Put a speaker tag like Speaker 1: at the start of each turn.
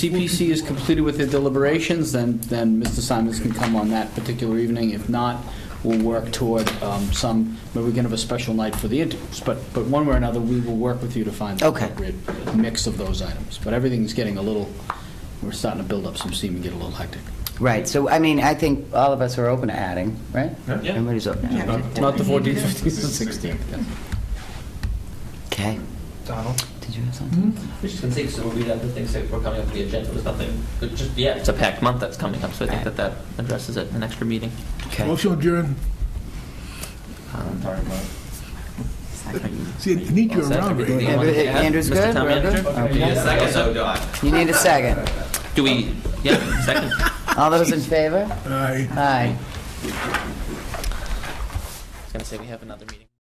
Speaker 1: CPC is completed with their deliberations, then, then Mr. Simons can come on that particular evening. If not, we'll work toward um, some, maybe we can have a special night for the interviews. But, but one way or another, we will work with you to find the
Speaker 2: Okay.
Speaker 1: appropriate mix of those items. But everything's getting a little, we're starting to build up some steam and get a little hectic.
Speaker 2: Right, so, I mean, I think all of us are open to adding, right?
Speaker 3: Yeah.
Speaker 2: Everybody's open to adding.
Speaker 1: Not the 14th, 15th, and 16th, yeah.
Speaker 2: Okay.
Speaker 4: Donald?
Speaker 2: Did you have something?
Speaker 3: We're just gonna say, so we have the things that were coming up on the agenda, there's nothing, but just, yeah, it's a packed month that's coming up, so I think that that addresses it, an extra meeting.
Speaker 2: Okay.
Speaker 5: Motion adjourned. See, I need you
Speaker 3: Um,
Speaker 5: around
Speaker 3: Well, that's
Speaker 5: right
Speaker 3: everything.
Speaker 5: now.
Speaker 2: Every-
Speaker 3: Yeah.
Speaker 2: Andrew's
Speaker 3: Mr.
Speaker 2: good?
Speaker 3: Town
Speaker 2: We're
Speaker 3: Manager?
Speaker 2: good?
Speaker 3: Do you need a
Speaker 2: Okay.
Speaker 3: second?
Speaker 2: You need a second.
Speaker 3: Do we, yeah, second.
Speaker 2: All those in favor?
Speaker 5: Aye.
Speaker 2: Aye.
Speaker 3: I was gonna say, we have another meeting.